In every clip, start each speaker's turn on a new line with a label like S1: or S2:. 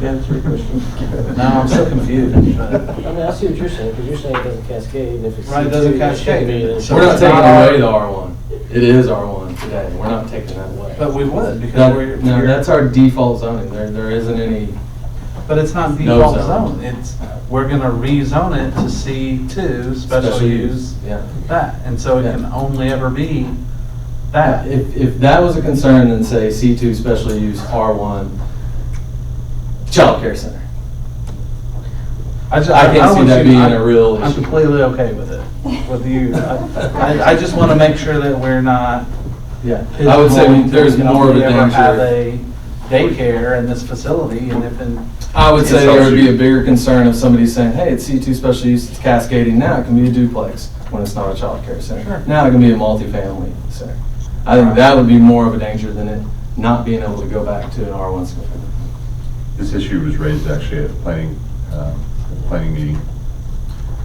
S1: Yeah, three questions.
S2: Now I'm so confused.
S3: I mean, I see what you're saying, because you're saying it doesn't cascade, and if it's.
S2: Right, it doesn't
S3: C2, it should
S2: cascade.
S3: be, then-
S2: So
S4: We're not
S2: it's
S4: taking
S2: not
S4: away the
S2: our-
S4: R1. It is R1 today. We're not taking that away.
S2: But we would, because
S4: That-
S2: we're.
S4: No,
S2: we're-
S4: that's our default zoning. There, there isn't any,
S2: But it's not
S4: No
S2: default
S4: zone.
S2: zone, it's, we're gonna rezone it to C two, special
S4: Special use,
S2: use,
S4: yeah.
S2: that, and so it
S4: Yeah.
S2: can only ever be that.
S4: if, if that was a concern, then say C two special use, R one, childcare center.
S2: ju-
S4: I can't see
S2: want
S4: that
S2: you-
S4: being
S2: I'm-
S4: a real
S2: I'm
S4: issue.
S2: completely okay with it, with you. I, I- I just wanna make sure that we're not.
S4: Yeah, I would say we- there's
S2: pigeonholing,
S4: more of a
S2: we ever Have
S4: danger.
S2: a daycare in this facility, and if in.
S4: I would say there would be a bigger concern of somebody saying, hey, it's C two special use, it's cascading now, it can be a duplex when it's not a childcare
S2: Sure.
S4: center. Now it can be a multifamily center. I think that would be more of a danger than it not being able to go back to an R one single family.
S5: This issue was raised actually at a planning, um, at a planning meeting.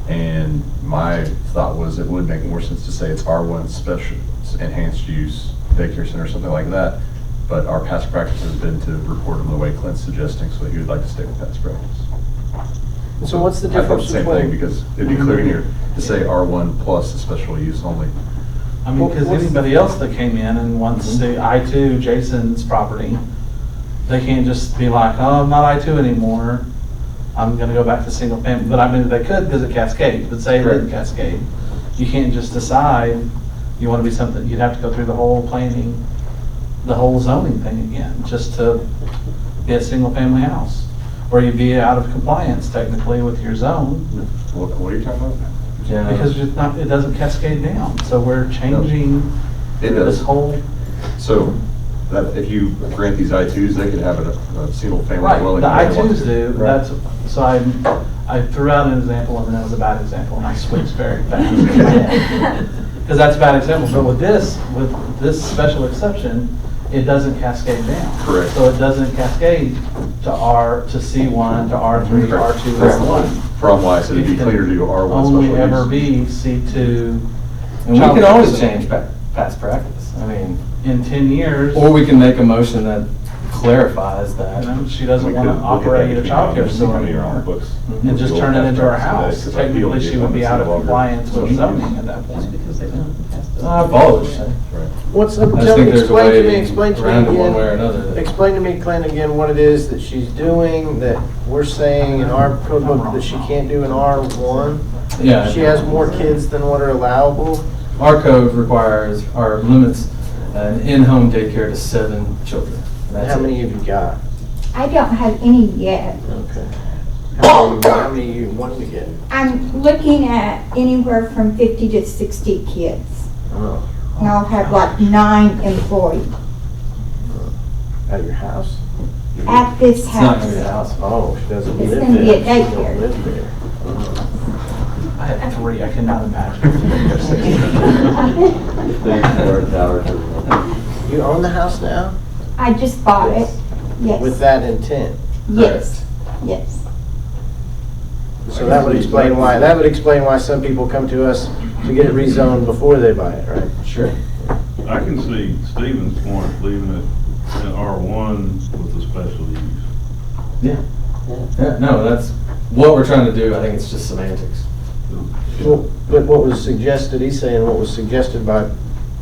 S5: And my thought was it would make more sense to say it's R1 special, enhanced use daycare center or something like that. But our past practice has been to report them the way Clint's suggesting, so he would like to stay with past practice.
S3: So what's the
S5: I thought the
S3: difference
S5: same
S3: between?
S5: thing, because it'd be clear here to say R1 plus a special use only.
S2: I mean, because
S3: What's-
S2: anybody else that came in and wants the I two Jason's property, they can't just be like, oh, I'm not I two anymore. I'm gonna go back to single family, but I mean, they could because it cascades, but say it didn't
S4: Correct.
S2: cascade. You can't just decide you wanna be something, you'd have to go through the whole planning, the whole zoning thing again, just to be a single family house. Or you'd be out of compliance technically with your zone
S5: What what are you talking about?
S4: Yeah.
S2: because it's not, it doesn't cascade down. So we're changing
S5: It
S2: this
S5: does.
S2: whole
S5: So that if you grant these I2s, they could have a, a single family
S2: Right,
S5: dwelling.
S2: the I
S5: if they want
S2: twos
S5: to.
S2: do, that's, so I, I threw out an example and then it was a bad example and I switched very fast. Because that's a bad example, but with this, with this special exception, it doesn't cascade down.
S5: Correct.
S2: So it doesn't cascade to R, to C one, to R three, R two,
S5: Correct.
S2: R one.
S5: From why, so it'd be cleaner to do R1 special use.
S2: Only ever be C two
S4: And we can
S2: Childcare
S4: always
S2: center.
S4: change pa- past practice, I mean,
S2: in ten years.
S4: or we can make a motion that clarifies
S2: You
S4: that.
S2: know, she doesn't want to operate a childcare facility. and just turn it into our house. Technically, she would be out of compliance with zoning at that point. Uh,
S6: because they don't have to.
S4: I apologize. I
S3: What's, up-
S4: just
S3: tell me,
S4: think there's a
S3: explain to me,
S4: way
S3: explain to
S4: around it
S3: me
S4: one way or
S3: again.
S4: another. that-
S3: Explain to me, Clint, again, what it is that she's doing, that we're saying in our code book that she can't do in R one.
S4: Yeah.
S3: She has more kids than what are allowable.
S4: Our code requires, or limits an in-home daycare to seven children. That's
S3: How
S4: it.
S3: many have you got?
S7: I don't have any yet.
S3: Okay. How many- how many you wanting to get?
S7: I'm looking at anywhere from 50 to 60 kids.
S3: Oh,
S7: And I'll have like nine employees
S3: At your house?
S7: at this
S4: It's not gonna be a
S7: house.
S4: house.
S3: Oh, she doesn't
S7: It's
S3: live there.
S7: gonna be a
S3: She
S7: daycare.
S3: don't live there. Oh.
S2: I have three, I cannot imagine.
S3: You own the house now?
S7: I just bought it.
S3: With
S7: Yes,
S3: that intent?
S7: yes, yes.
S3: So that would explain why, that would explain why some people come to us to get it rezoned before they buy it, right?
S4: Sure.
S8: I can see Stephen's point, leaving it in R1 with the special use.
S4: Yeah, no, that's what we're trying to do. I think it's just semantics.
S3: Well, But what was suggested, he's saying what was suggested by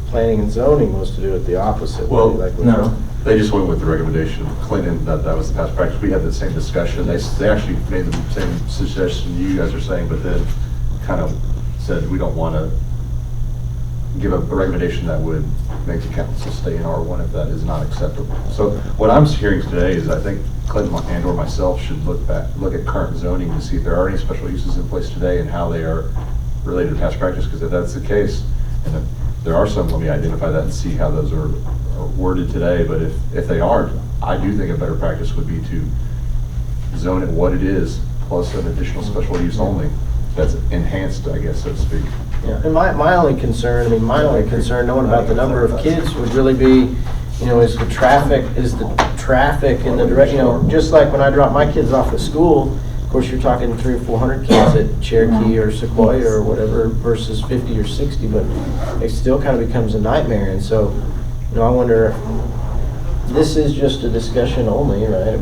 S3: planning and zoning was to do it the opposite. way,
S5: Well,
S3: like with-
S4: No.
S5: They just went with the recommendation of Clinton, that, that was the past practice. We had the same discussion. They, s- they actually made the same suggestion you guys are saying, but then kind of said, we don't want to give a a recommendation that would make the council stay in R1 if that is not acceptable. So what I'm hearing today is I think Clinton and/or myself should look back, look at current zoning to see if there are any special uses in place today and how they are related to past practice, because if that's the case, and if there are some, let me identify that and see how those are are worded today, but if, if they aren't, I do think a better practice would be to zone it what it is, plus an additional special use only, that's enhanced, I guess, so to speak.
S3: And my, my only concern, I mean, my only concern, knowing about the number of kids would really be, you know, is the traffic, is the traffic in the direct, you know, just like when I drop my kids off at school, of course, you're talking three or four hundred kids at Cherokee or Sequoia or whatever versus fifty or sixty, but it still kind of becomes a nightmare. And so, you know, I wonder, this is just a discussion only, right? I mean,